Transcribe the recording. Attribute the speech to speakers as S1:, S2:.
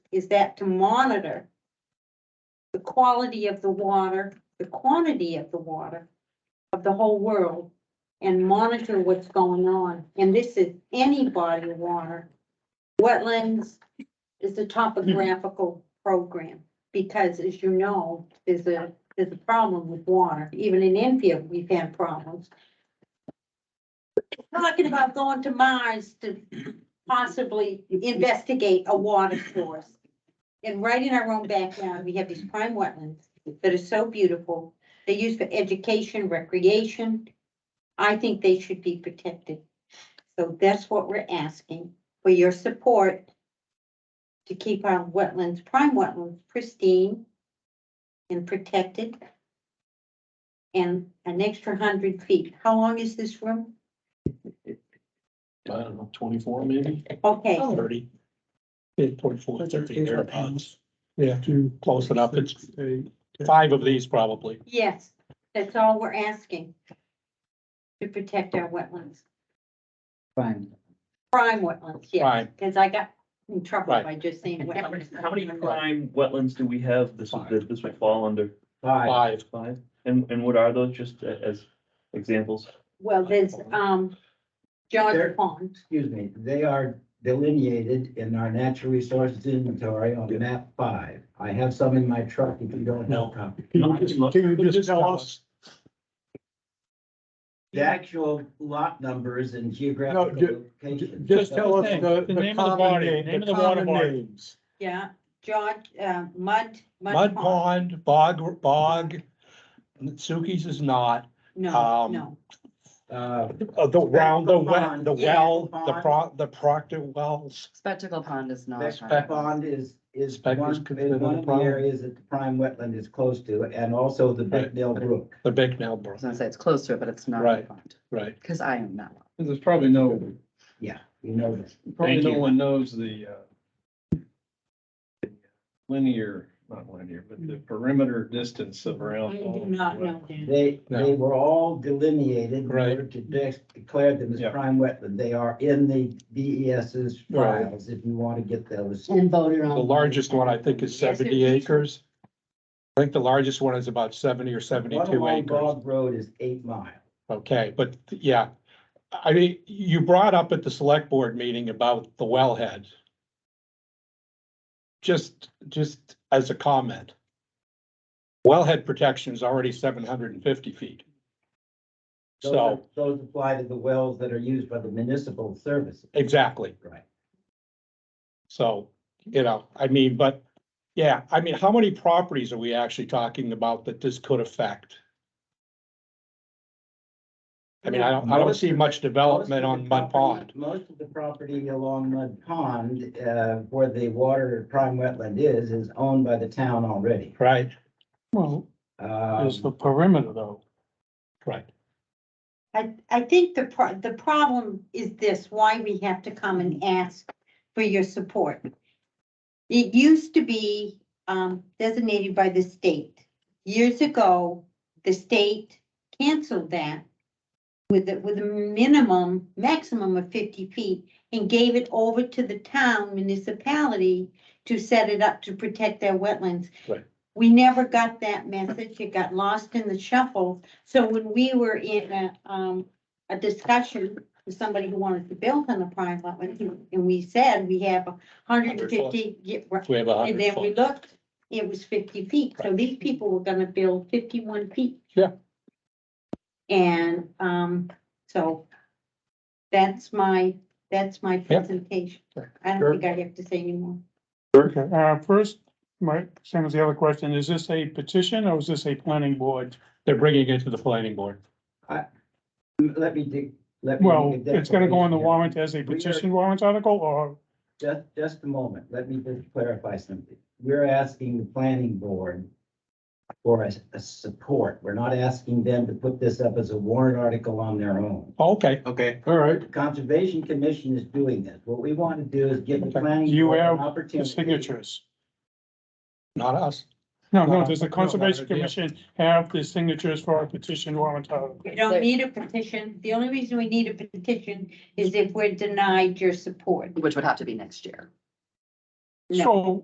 S1: is that to monitor the quality of the water, the quantity of the water of the whole world and monitor what's going on. And this is any body of water. Wetlands is a topographical program because as you know, there's a, there's a problem with water. Even in Enfield, we've had problems. Talking about going to Mars to possibly investigate a water source. And right in our own backyard, we have these prime wetlands that are so beautiful. They're used for education, recreation. I think they should be protected. So that's what we're asking for your support to keep our wetlands, prime wetlands pristine and protected. And an extra hundred feet. How long is this room?
S2: I don't know, twenty-four maybe,
S1: Okay,
S2: thirty.
S3: Eight point four, thirteen
S2: thereabouts.
S3: Yeah, to close it up, it's five of these probably.
S1: yes, that's all we're asking. To protect our wetlands,
S4: Fine.
S1: prime wetlands, yes,
S3: Prime.
S1: because I got in trouble
S3: Right.
S1: by just saying
S5: How many,
S1: wetlands.
S5: how many prime wetlands do we have? This would, that this would fall under
S4: Five.
S3: Five.
S5: five? And, and what are those, just a- as examples?
S1: Well, there's, um, John
S4: There-
S1: Pond,
S4: excuse me, they are delineated in our natural resources inventory on map five. I have some in my truck if you don't
S3: No.
S4: have a copy.
S5: No, I can look.
S3: Can you
S2: just tell us?
S4: The actual lot numbers and geographical
S3: ju- Ju-
S4: location.
S3: Just tell us the,
S2: The
S3: the
S2: name of the
S3: common
S2: body,
S3: name,
S2: name
S3: the
S2: of the water
S3: common
S2: body.
S3: names.
S1: yeah, John, uh, Mud,
S3: Mud Pond, Bog, Bog, Suki's is not,
S1: No,
S3: um,
S1: no,
S4: Uh,
S3: uh, the round, the well,
S4: Pond.
S3: the
S1: Yeah,
S3: well, the
S4: Pond.
S3: pro, the Proctor wells.
S6: Spectacle Pond is not. a
S4: Beck
S6: prime
S3: Spec-
S6: wetland.
S4: Pond is, is
S3: Beck is
S4: one,
S3: considered
S4: is
S3: a
S4: one of the
S3: prime.
S4: areas that the prime wetland is close to, and also the Beckdale Brook.
S3: The Bicknell
S6: I
S3: Brook,
S6: was gonna say it's close to it, but it's not a
S3: Right.
S6: pond,
S3: right.
S6: because I am not. one.
S7: There's probably no,
S4: Yeah, you know this.
S7: probably
S3: Thank
S7: no
S3: you.
S7: one knows the uh, the linear, not linear, but the perimeter distance of
S1: I
S7: around.
S1: do not know that.
S4: They,
S3: No.
S4: they were all delineated. in
S3: Right.
S4: order To de- declare them as
S7: Yeah.
S4: prime wetland. They are in the DES's
S3: Right.
S4: files if you want to get those.
S6: And voted
S3: The largest one I think is
S1: Yes, it
S3: seventy
S1: is.
S3: acres. I think the largest one is about seventy or seventy-two
S4: One
S3: acres.
S4: Bog Road is eight miles.
S3: Okay, but yeah, I mean, you brought up at the select board meeting about the wellhead. Just, just as a comment. Wellhead protection is already seven hundred and fifty feet.
S4: Those are-
S3: So,
S4: Those apply to the wells that are used by the municipal services.
S3: exactly.
S4: Right.
S3: So, you know, I mean, but, yeah, I mean, how many properties are we actually talking about that this could affect? I mean, I don't, I don't see much development
S4: Most of
S3: on
S4: the
S3: Mud Pond.
S4: property- Most of the property along Mud Pond, uh, where the water prime wetland is, is owned by the town already.
S3: Right,
S8: Well,
S4: Um,
S8: there's the perimeter though.
S3: right.
S1: I, I think the pro, the problem is this, why we have to come and ask for your support. It used to be, um, designated by the state. Years ago, the state canceled that with, a- with a minimum, maximum of fifty feet and gave it over to the town municipality to set it up to protect their wetlands.
S3: Right.
S1: We never got that message. It got lost in the shuffle. So when we were in a, um, a discussion with somebody who wanted to build on the prime wetland, and we said we have a hundred and fifty, yeah, right.
S3: We have a
S1: and
S3: hundred
S1: then we
S3: foot.
S1: looked, it was fifty feet, so these people were gonna build fifty-one feet.
S3: Yeah.
S1: And, um, so that's my, that's my presentation. I
S3: Sure.
S1: don't think I have to say anymore.
S8: Okay, uh, first, my, same as the other question, is this a petition or is this a planning board?
S3: They're bringing it to the planning board.
S4: Let me dig, let me.
S8: Well,
S4: make a
S8: it's gonna go on the
S4: declaration.
S8: warrant as a petition warrant article or,
S4: Just, just a moment, let me just clarify something. We're asking the planning board for a, a support. We're not asking them to put this up as a warrant article on their own.
S3: Okay,
S7: Okay.
S3: all right.
S4: The Conservation Commission is doing this. What we want to do is give the planning.
S8: You
S4: board an
S8: have the
S4: opportunity.
S8: the signatures?
S3: Not us.
S8: No, no, does the
S3: No, no, no,
S8: Conservation
S3: yeah.
S8: Commission have the signatures for a petition warrant article?
S1: We don't
S6: There-
S1: need a petition. The only reason we need a petition is if we're denied your support.
S6: Which would have to be next year.
S1: No.
S8: So